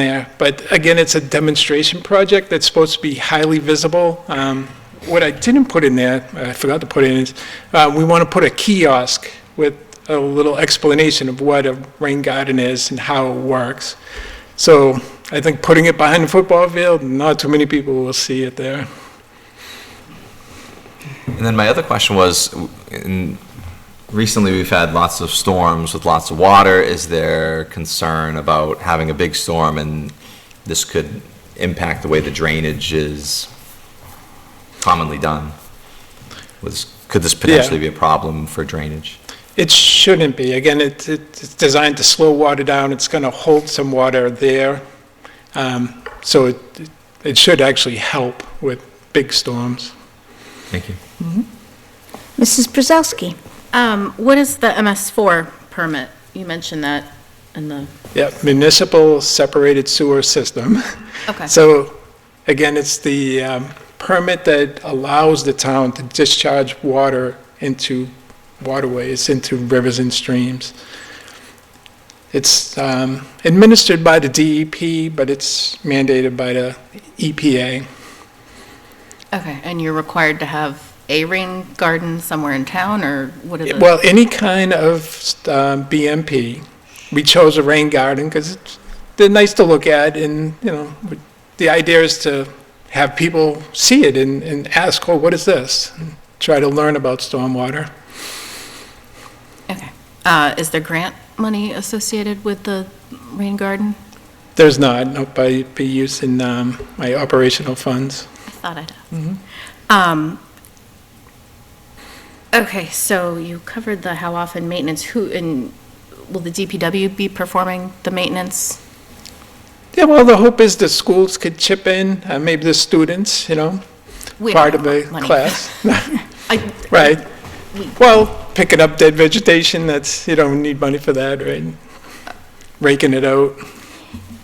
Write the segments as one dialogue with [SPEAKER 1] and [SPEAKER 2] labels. [SPEAKER 1] there. But again, it's a demonstration project that's supposed to be highly visible. Um, What I didn't put in there, I forgot to put in, is uh, we want to put a kiosk with a little explanation of what a rain garden is and how it works. So I think putting it behind the football field, not too many people will see it there.
[SPEAKER 2] And then my other question was, in, recently we've had lots of storms with lots of water. Is there concern about having a big storm and this could impact the way the drainage is commonly done? Was, could this potentially be a problem for drainage?
[SPEAKER 1] It shouldn't be. Again, it- it- it's designed to slow water down. It's going to hold some water there. Um, So it it should actually help with big storms.
[SPEAKER 2] Thank you.
[SPEAKER 3] Mrs. Brzezowski.
[SPEAKER 4] Um, what is the MS4 permit? You mentioned that in the,
[SPEAKER 1] Yeah, municipal separated sewer system.
[SPEAKER 4] okay.
[SPEAKER 1] So, again, it's the um, permit that allows the town to discharge water into waterways, into rivers and streams. It's um, administered by the DEP, but it's mandated by the E EPA.
[SPEAKER 4] Okay, and you're required to have a rain garden somewhere in town, or what is it?
[SPEAKER 1] Well, any kind of um, BMP. We chose a rain garden because they're nice to look at and, you know, the idea is to have people see it and, and ask, oh, what is this? And Try to learn about stormwater.
[SPEAKER 4] Okay. Uh, is there grant money associated with the rain garden?
[SPEAKER 1] There's not, no, by, by using um, my operational funds.
[SPEAKER 4] I thought I'd ask.
[SPEAKER 1] Mm-hmm.
[SPEAKER 4] Um, okay, so you covered the how often maintenance, who, and will the DPW be performing the maintenance?
[SPEAKER 1] Yeah, well, the hope is the schools could chip in, uh, maybe the students, you know,
[SPEAKER 4] We don't
[SPEAKER 1] part of
[SPEAKER 4] have
[SPEAKER 1] the
[SPEAKER 4] money.
[SPEAKER 1] class.
[SPEAKER 4] I-
[SPEAKER 1] Right. Well, picking up dead vegetation, that's, you don't need money for that, right? Raking it out.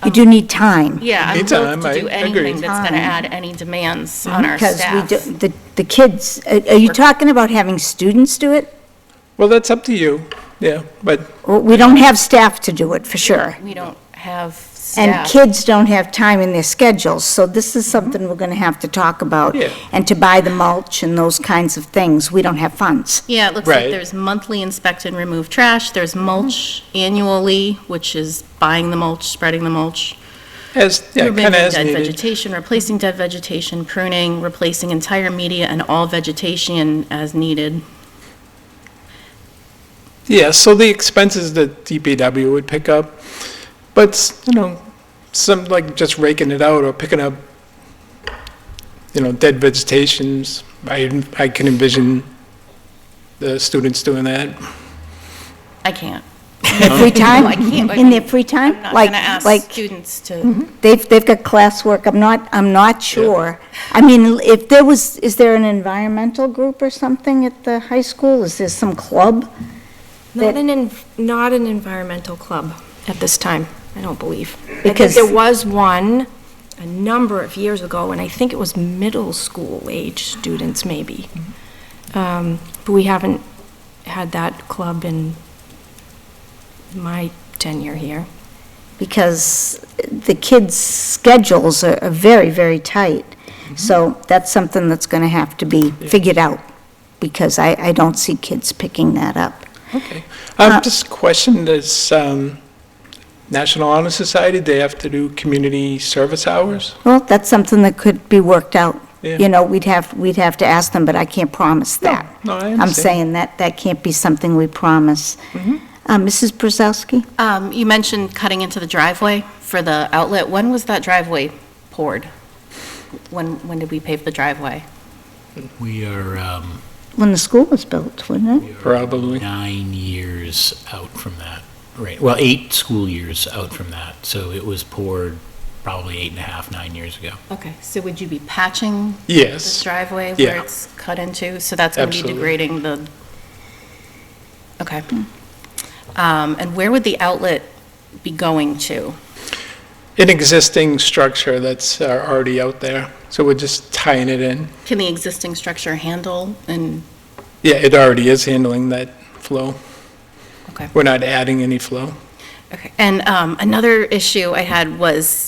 [SPEAKER 3] You
[SPEAKER 4] Oh.
[SPEAKER 3] do need time.
[SPEAKER 4] Yeah, I'm
[SPEAKER 1] Anytime,
[SPEAKER 4] loath to do
[SPEAKER 1] I agree.
[SPEAKER 4] anything that's going to
[SPEAKER 3] Time.
[SPEAKER 4] add any demands on our staff.
[SPEAKER 3] Because we do, the, the kids, are are you talking about having students do it?
[SPEAKER 1] Well, that's up to you, yeah, but,
[SPEAKER 3] Well, We don't have staff to do it, for sure.
[SPEAKER 4] We don't have
[SPEAKER 3] And
[SPEAKER 4] staff.
[SPEAKER 3] kids don't have time in their schedules, so this is something we're going to have to talk about.
[SPEAKER 1] Yeah.
[SPEAKER 3] And to buy the mulch and those kinds of things, we don't have funds.
[SPEAKER 4] Yeah, it looks like
[SPEAKER 1] Right.
[SPEAKER 4] there's monthly inspect and remove trash, there's mulch annually, which is buying the mulch, spreading the mulch,
[SPEAKER 1] as, yeah,
[SPEAKER 4] removing
[SPEAKER 1] kind of
[SPEAKER 4] dead
[SPEAKER 1] as needed.
[SPEAKER 4] vegetation, replacing dead vegetation, pruning, replacing entire media and all vegetation as needed.
[SPEAKER 1] Yeah, so the expenses that DPW would pick up, but, you know, some, like, just raking it out or picking up, you know, dead vegetations, I, I can envision the students doing that.
[SPEAKER 4] I can't.
[SPEAKER 3] Their free time?
[SPEAKER 4] I can't, like,
[SPEAKER 3] In their free time?
[SPEAKER 4] I'm not
[SPEAKER 3] Like-
[SPEAKER 4] going to ask
[SPEAKER 3] Like,
[SPEAKER 4] students to,
[SPEAKER 3] They've, they've got classwork, I'm not, I'm not sure. I mean, if there was, is there an environmental group or something at the high school? Is there some club?
[SPEAKER 5] Not
[SPEAKER 3] that-
[SPEAKER 5] an, en- not an environmental club at this time, I don't believe. Because
[SPEAKER 3] Because-
[SPEAKER 5] there was one a number of years ago, and I think it was middle school age students maybe. Um, But we haven't had that club in my tenure here.
[SPEAKER 3] Because the kids' schedules are are very, very tight.
[SPEAKER 1] Mm-hmm.
[SPEAKER 3] So that's something that's going to have to be figured out, because I, I don't see kids picking that up.
[SPEAKER 1] Okay. Um,
[SPEAKER 3] Uh,
[SPEAKER 1] just question, does, um, National Honor Society, they have to do community service hours?
[SPEAKER 3] Well, that's something that could be worked out.
[SPEAKER 1] Yeah.
[SPEAKER 3] You know, we'd have, we'd have to ask them, but I can't promise that.
[SPEAKER 1] No, I understand.
[SPEAKER 3] I'm
[SPEAKER 1] Mm-hmm.
[SPEAKER 3] saying that, that can't be something we promise. Uh, Mrs. Brzezowski?
[SPEAKER 4] um, you mentioned cutting into the driveway for the outlet. When was that driveway poured? When, when did we pave the driveway?
[SPEAKER 6] We are um,
[SPEAKER 3] When the school was built, wasn't it?
[SPEAKER 1] Probably.
[SPEAKER 6] nine years out from that, right, well, eight school years out from that, so it was poured probably eight and a half, nine years ago.
[SPEAKER 4] Okay, so would you be patching this
[SPEAKER 1] Yes.
[SPEAKER 4] driveway
[SPEAKER 1] Yeah.
[SPEAKER 4] where it's cut into, so that's going to be
[SPEAKER 1] Absolutely.
[SPEAKER 4] degrading the, okay. Um, And where would the outlet be going to?
[SPEAKER 1] an existing structure that's uh, already out there, so we're just tying it in.
[SPEAKER 4] Can the existing structure handle and,
[SPEAKER 1] Yeah, it already is handling that flow.
[SPEAKER 4] Okay.
[SPEAKER 1] We're not adding any flow.
[SPEAKER 4] okay. And um, another issue I had was